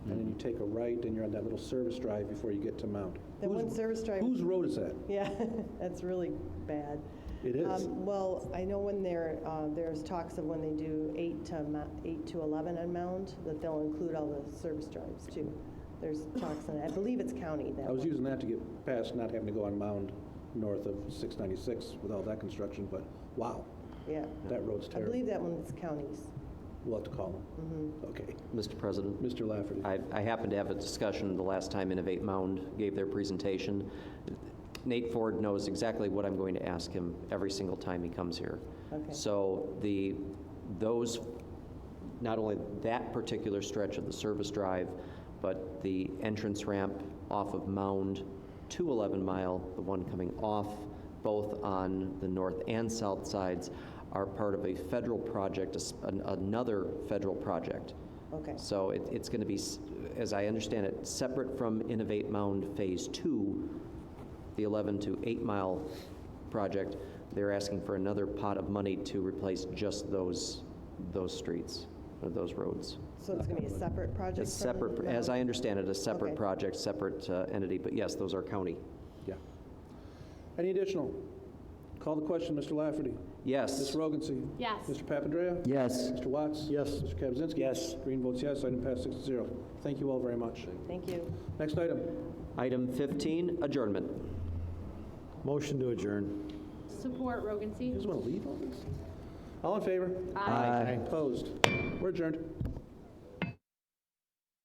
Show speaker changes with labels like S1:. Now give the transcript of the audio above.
S1: take a right and you're on that little service drive before you get to Mount.
S2: That one
S1: Whose-
S2: service drive-
S1: Whose road is that?
S2: Yeah, that's really bad.
S1: It is.
S2: Um, Well, I know when there, uh, there's talks of when they do eight to, mo- eight to 11 on Mound, that they'll include all the service drives too. There's talks, and I believe it's county that
S1: I was
S2: one.
S1: using that to get past not having to go on Mound north of 696 with all that construction, but wow,
S2: Yeah.
S1: that road's
S2: I believe Mm-hmm.
S1: terrible.
S2: that one's counties.
S1: We'll have to call them. Okay.
S3: Mr. President?
S1: Mr. Lafferty.
S3: I, I happened to have a discussion the last time Innovate Mound gave their presentation. Nate Ford knows exactly what I'm going to ask him every single time he comes here.
S2: Okay.
S3: So the, those, not only that particular stretch of the service drive, but the entrance ramp off of Mound to 11 Mile, the one coming off, both on the north and south sides, are part of a federal project, a s- an- another federal project.
S2: Okay.
S3: So it, it's going to be, s- as I understand it, separate from Innovate Mound Phase Two, the 11 to 8 mile project. They're asking for another pot of money to replace just those, those streets, or those roads.
S2: So it's going to be a separate project?
S3: It's
S2: from
S3: separate, as I
S2: Mound?
S3: understand it, a separate
S2: Okay.
S3: project, separate uh, entity, but yes, those are county.
S1: Yeah. Any additional? Call the question, Mr. Lafferty. Ms.
S3: Yes.
S1: Rogency.
S4: Yes.
S1: Mr. Papandrea.
S3: Yes.
S1: Mr. Watts. Yes. Mr. Kaczynski.
S5: Yes.
S1: Green votes yes. Item passed six to zero. Thank you all very much.
S2: Thank you.
S1: Next item.
S3: Item 15, adjournment.
S5: Motion to adjourn.
S4: Support Rogan
S1: You
S4: C.
S1: guys want to leave all this? All in favor? Opposed? We're adjourned.